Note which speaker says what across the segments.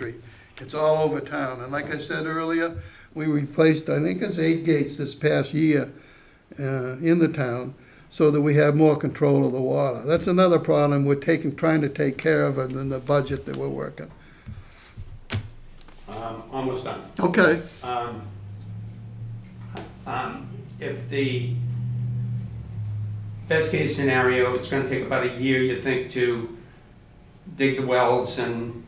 Speaker 1: Street. It's all over town, and like I said earlier, we replaced, I think it's eight gates this past year uh, in the town, so that we have more control of the water. That's another problem we're taking, trying to take care of in the budget that we're working.
Speaker 2: Um, almost done.
Speaker 1: Okay,
Speaker 2: Um, um, if the best case scenario, it's gonna take about a year, you think, to dig the wells and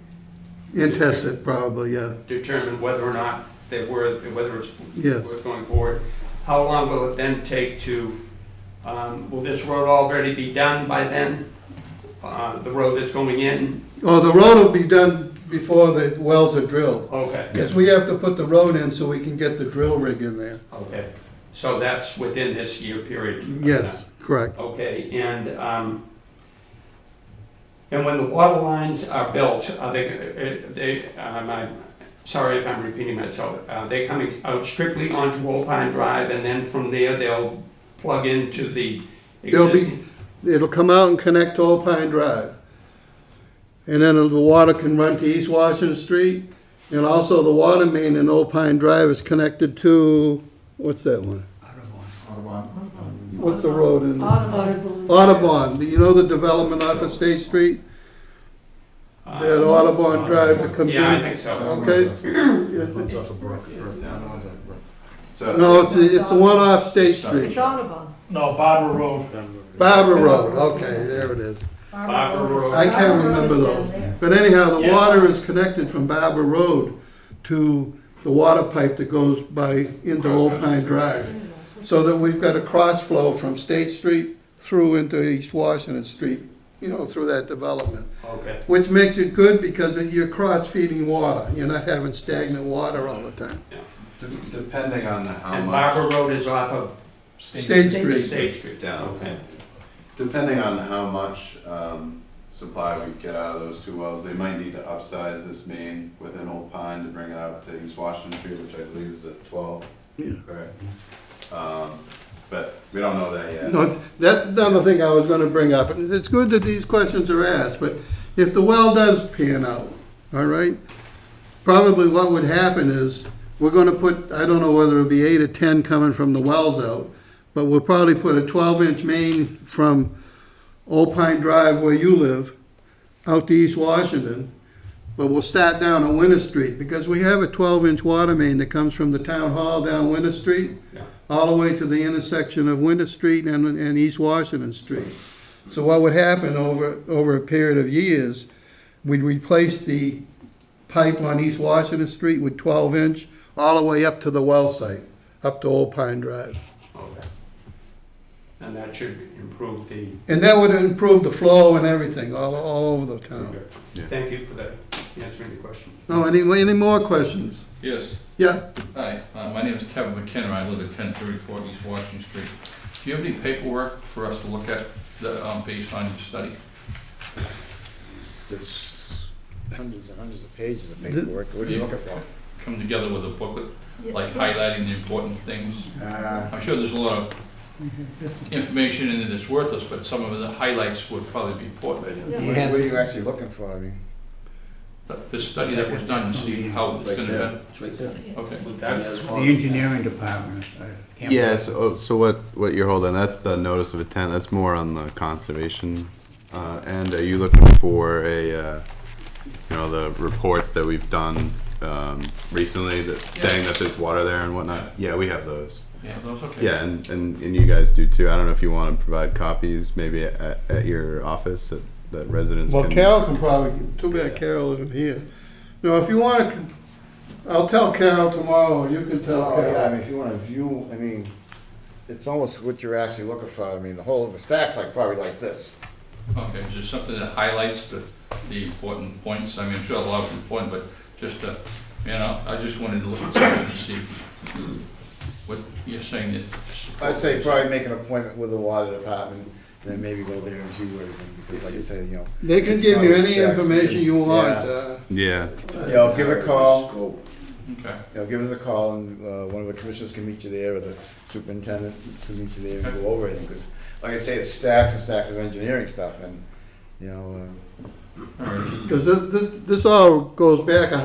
Speaker 1: and test it probably, yeah.
Speaker 2: determine whether or not they were, whether it's
Speaker 1: Yes.
Speaker 2: worth going forward. How long will it then take to, um, will this road already be done by then? Uh, the road that's going in?
Speaker 1: Oh, the road will be done before the wells are drilled.
Speaker 2: Okay,
Speaker 1: Yes, we have to put the road in so we can get the drill rig in there.
Speaker 2: okay. So that's within this year period? of time.
Speaker 1: Yes, correct.
Speaker 2: Okay, and, um, and when the water lines are built, are they, uh, they, um, I'm sorry if I'm repeating myself, are they coming out strictly onto Old Pine Drive and then from there they'll plug into the
Speaker 1: They'll be-
Speaker 2: existing?
Speaker 1: It'll come out and connect to Old Pine Drive. And then the water can run to East Washington Street. And also the water main in Old Pine Drive is connected to, what's that one? What's the road in?
Speaker 3: Audubon.
Speaker 1: Audubon. You know the development off of State Street?
Speaker 2: uh,
Speaker 1: That Audubon Drive that comes in?
Speaker 2: Yeah, I think so.
Speaker 1: Okay. No,
Speaker 4: So,
Speaker 1: it's, it's the one off State
Speaker 3: It's
Speaker 1: Street.
Speaker 3: Audubon.
Speaker 5: No, Barbara Road.
Speaker 1: Barbara Road, okay, there it is.
Speaker 2: Barbara Road.
Speaker 1: I can't remember
Speaker 3: though.
Speaker 1: those. But anyhow, the
Speaker 2: Yes.
Speaker 1: water is connected from Barbara Road to the water pipe that goes by into Old Pine Drive. So that we've got a cross flow from State Street through into East Washington Street, you know, through that development.
Speaker 2: Okay,
Speaker 1: Which makes it good because it- you're cross-feeding water. You're not having stagnant water all the time.
Speaker 4: de- depending on the how
Speaker 2: and
Speaker 4: much,
Speaker 2: Barbara Road is off of
Speaker 1: State Street,
Speaker 2: State Street?
Speaker 4: Down.
Speaker 2: Okay,
Speaker 4: depending on how much, um, supply we get out of those two wells, they might need to upsize this main within Old Pine to bring it out to East Washington Street, which I believe is at twelve.
Speaker 1: Yeah.
Speaker 4: Correct. Um, but we don't know that yet.
Speaker 1: No, it's- that's another thing I was gonna bring up. And It's good that these questions are asked, but if the well does pan out, all right? Probably what would happen is, we're gonna put, I don't know whether it'll be eight or ten coming from the wells out, but we'll probably put a twelve inch main from Old Pine Drive where you live, out to East Washington. But we'll start down on Winter Street, because we have a twelve inch water main that comes from the town hall down Winter Street
Speaker 2: yeah.
Speaker 1: all the way to the intersection of Winter Street and, and East Washington Street. So what would happen over, over a period of years, we'd replace the pipe on East Washington Street with twelve inch all the way up to the well site, up to Old Pine Drive.
Speaker 2: Okay. And that should improve the,
Speaker 1: And that would improve the flow and everything all, all over the town.
Speaker 4: Yeah.
Speaker 2: thank you for that, answering the question.
Speaker 1: No, any, any more questions?
Speaker 6: Yes,
Speaker 1: Yeah,
Speaker 6: hi, uh, my name is Kevin McKenna, I live at ten thirty-four East Washington Street. Do you have any paperwork for us to look at, that, um, based on your study?
Speaker 7: There's hundreds and hundreds of pages of paperwork. What are you looking for?
Speaker 6: Come together with a booklet, like highlighting the important things?
Speaker 7: Uh,
Speaker 6: I'm sure there's a lot of information in it that's worthless, but some of the highlights would probably be important.
Speaker 7: What what are you actually looking for? I mean,
Speaker 6: But This study that was done, see how it's gonna be, okay.
Speaker 8: The engineering department. I can't-
Speaker 4: Yeah, so, oh, so what, what you're holding, that's the notice of intent, that's more on the conservation, uh, end, are you looking for a, uh, you know, the reports that we've done, um, recently, that, saying that there's water there and whatnot? Yeah, we have those.
Speaker 6: Yeah, those, okay.
Speaker 4: Yeah, and, and, and you guys do too, I don't know if you wanna provide copies, maybe at, at your office, that, that residents can.
Speaker 1: well, Carol can probably, too bad Carol isn't here. No, if you wanna, I'll tell Carol tomorrow, you can tell
Speaker 7: oh,
Speaker 1: Carol.
Speaker 7: yeah, I mean, if you wanna view, I mean, it's almost what you're actually looking for. I mean, the whole, the stack's like, probably like this.
Speaker 6: Okay, is there something that highlights the, the important points? I mean, I'm sure a lot of important, but just, uh, you know, I just wanted to look at something to see what you're saying that.
Speaker 7: I'd say probably make an appointment with the water department, then maybe go there and view everything, because like I said, you know.
Speaker 1: They can
Speaker 7: it's
Speaker 1: give
Speaker 7: not
Speaker 1: you
Speaker 7: a
Speaker 1: any
Speaker 7: stack,
Speaker 1: information you
Speaker 7: yeah.
Speaker 1: want. uh,
Speaker 4: Yeah,
Speaker 7: You know, give a call, you
Speaker 6: Okay,
Speaker 7: know, give us a call, and, uh, one of the commissioners can meet you there, or the superintendent can meet you there and go over it, because, like I say, it's stacks and stacks of engineering stuff, and, you know, um,
Speaker 6: all right.
Speaker 1: Because this, this all goes back a